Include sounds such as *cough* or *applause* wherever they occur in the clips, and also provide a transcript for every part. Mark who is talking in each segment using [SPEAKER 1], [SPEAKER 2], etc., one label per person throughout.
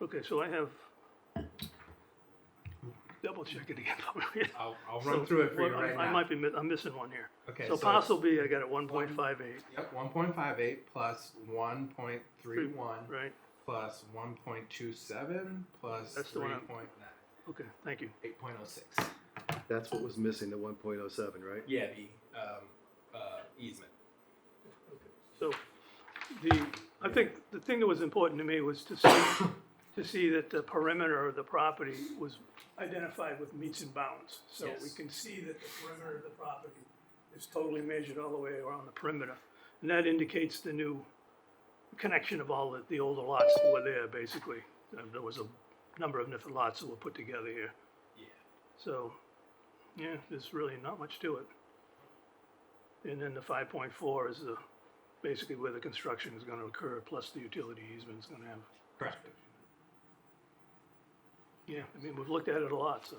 [SPEAKER 1] Okay, so I have, double check it again. *laughs*
[SPEAKER 2] I'll, I'll
[SPEAKER 1] So,
[SPEAKER 2] run through it for you
[SPEAKER 1] well, I-
[SPEAKER 2] right
[SPEAKER 1] I
[SPEAKER 2] now.
[SPEAKER 1] might be, mi- I'm missing one here.
[SPEAKER 2] Okay,
[SPEAKER 1] So
[SPEAKER 2] so-
[SPEAKER 1] possibly I got it one point five eight,
[SPEAKER 2] Yep, one point five eight plus one point three one
[SPEAKER 1] right?
[SPEAKER 2] plus one point two seven plus
[SPEAKER 1] That's the
[SPEAKER 2] three
[SPEAKER 1] one I'm-
[SPEAKER 2] point nine,
[SPEAKER 1] Okay, thank you.
[SPEAKER 2] eight point oh six.
[SPEAKER 3] That's what was missing, the one point oh seven, right?
[SPEAKER 2] Yeah, the, um, uh, easement.
[SPEAKER 1] So, the, I think the thing that was important to me was to see, to see that the perimeter of the property was identified with meets and bounds. So we
[SPEAKER 2] Yes.
[SPEAKER 1] can see that the perimeter of the property is totally measured all the way around the perimeter. And that indicates the new connection of all the, the older lots that were there, basically. Uh, There was a number of different lots that were put together here.
[SPEAKER 2] Yeah.
[SPEAKER 1] So, yeah, there's really not much to it. And then the five point four is the, basically where the construction is gonna occur, plus the utility easement's gonna have.
[SPEAKER 2] Correct.
[SPEAKER 1] Yeah, I mean, we've looked at it a lot, so,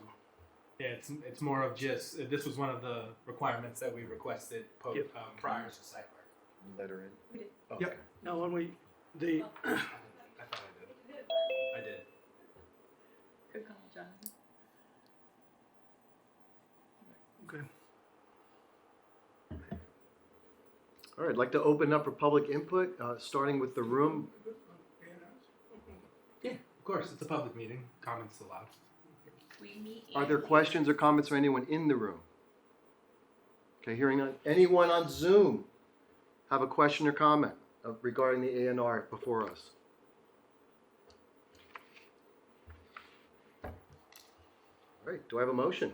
[SPEAKER 2] Yeah, it's, it's more of just, uh, this was one of the requirements that we requested po-
[SPEAKER 1] Yep.
[SPEAKER 2] um, prior to site work.
[SPEAKER 3] Letter in.
[SPEAKER 4] We did.
[SPEAKER 3] Okay.
[SPEAKER 2] Yep.
[SPEAKER 1] now when we, the,
[SPEAKER 2] I thought I did. I did.
[SPEAKER 4] Good call, Jonathan.
[SPEAKER 1] okay,
[SPEAKER 3] All right, I'd like to open up for public input, uh, starting with the room.
[SPEAKER 2] Yeah, of course, it's a public meeting, comments allowed.
[SPEAKER 4] We meet.
[SPEAKER 3] Are there
[SPEAKER 4] annually.
[SPEAKER 3] questions or comments from anyone in the room? Okay, hearing none. Anyone on Zoom have a question or comment of- regarding the A and R before us? All right, do I have a motion?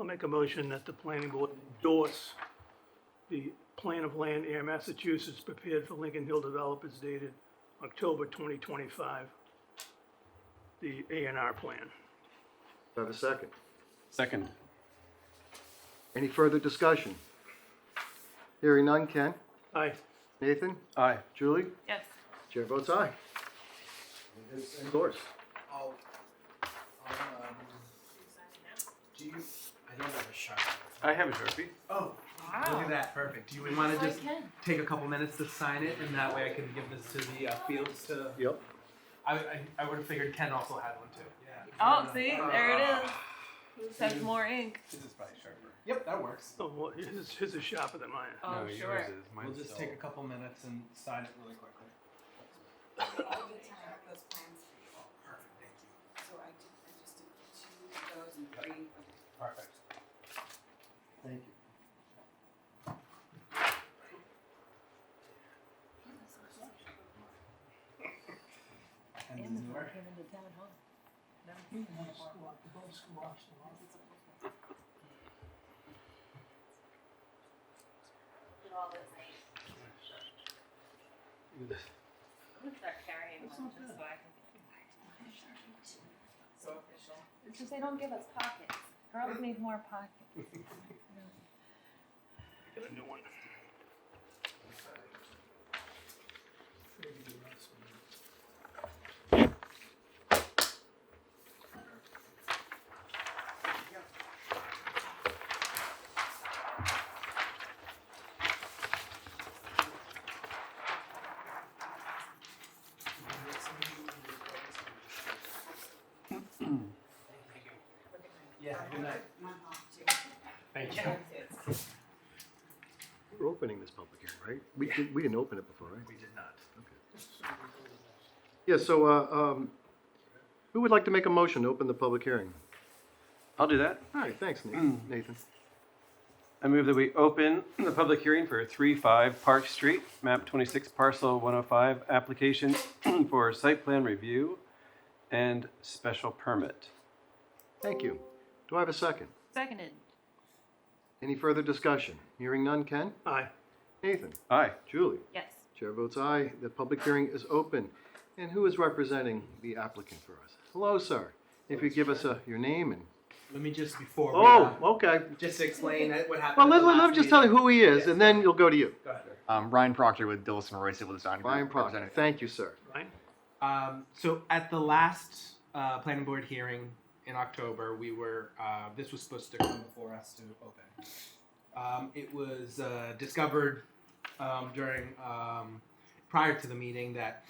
[SPEAKER 1] I'll make a motion that the planning board endorse the plan of land air Massachusetts prepared for Lincoln Hill Developers dated October twenty twenty-five. The A and R plan.
[SPEAKER 3] Do I have a second?
[SPEAKER 5] Second.
[SPEAKER 3] Any further discussion? Hearing none. Ken?
[SPEAKER 1] Aye,
[SPEAKER 3] Nathan?
[SPEAKER 5] Aye.
[SPEAKER 3] Julie?
[SPEAKER 4] Yes,
[SPEAKER 3] Chair votes aye. Endorsed.
[SPEAKER 2] I'll, I'll, Oh, um, do you, I don't have a sharp.
[SPEAKER 5] I have a Sharpie.
[SPEAKER 2] Oh, look at that, perfect. Do we want to
[SPEAKER 4] I
[SPEAKER 2] just
[SPEAKER 4] can.
[SPEAKER 2] take a couple minutes to sign it, and that way I can give this to the uh, fields to.
[SPEAKER 3] Yep.
[SPEAKER 2] I, I, I would have figured Ken also had one too. Yeah.
[SPEAKER 4] Oh, see, there it is.
[SPEAKER 3] Mm-hmm.
[SPEAKER 4] Sends more ink.
[SPEAKER 2] This is probably sharper. Yep, that works.
[SPEAKER 1] oh, well, his, his is sharper than mine.
[SPEAKER 4] Oh, sure.
[SPEAKER 2] We'll just take a couple minutes and sign it really quickly.
[SPEAKER 6] all the time with those plans,
[SPEAKER 2] Oh, perfect, thank you.
[SPEAKER 6] so I did, I just did two of those and three of
[SPEAKER 2] Perfect.
[SPEAKER 3] Thank you.
[SPEAKER 2] And
[SPEAKER 4] And the
[SPEAKER 2] this is where-
[SPEAKER 4] came into town hall.
[SPEAKER 7] I'm gonna start carrying one just so I can.
[SPEAKER 6] So official.
[SPEAKER 7] It's just they don't give us pockets. Girls need more pockets.
[SPEAKER 1] Get a new one.
[SPEAKER 2] Yeah, good night.
[SPEAKER 6] One off too.
[SPEAKER 2] Thank you.
[SPEAKER 3] We're opening this public hearing, right? We didn't, we didn't open it before, right?
[SPEAKER 2] We did not.
[SPEAKER 3] Yeah, so, uh, um, who would like to make a motion to open the public hearing?
[SPEAKER 5] I'll do that.
[SPEAKER 3] All right, thanks, Nathan. Nathan.
[SPEAKER 5] I move that we open the public hearing for 3-5 Park Street, map 26, parcel 105, application *clears throat* for site plan review and special permit.
[SPEAKER 3] Thank you. Do I have a second?
[SPEAKER 4] Seconded.
[SPEAKER 3] Any further discussion? Hearing none. Ken?
[SPEAKER 1] Aye.
[SPEAKER 3] Nathan?
[SPEAKER 5] Aye.
[SPEAKER 3] Julie?
[SPEAKER 4] Yes.
[SPEAKER 3] Chair votes aye. The public hearing is open. And who is representing the applicant for us? Hello, sir. If you give us uh, your name and,
[SPEAKER 2] Let me just before. we,
[SPEAKER 3] oh,
[SPEAKER 2] uh,
[SPEAKER 3] okay.
[SPEAKER 2] Just explain it- what happened.
[SPEAKER 3] Well,
[SPEAKER 2] at
[SPEAKER 3] let,
[SPEAKER 2] the
[SPEAKER 3] let,
[SPEAKER 2] last
[SPEAKER 3] let me just tell you
[SPEAKER 2] meeting.
[SPEAKER 3] who he is, and then you'll go to you.
[SPEAKER 2] Go ahead.
[SPEAKER 8] Um, Ryan Proctor with Dillison Roy Civil Design. Group,
[SPEAKER 3] Brian Proctor.
[SPEAKER 8] representing-
[SPEAKER 3] Thank you, sir.
[SPEAKER 1] Right?
[SPEAKER 2] Um, so at the last uh, planning board hearing in October, we were uh, this was supposed to come before us to open. Um, it was uh, discovered um, during um, prior to the meeting that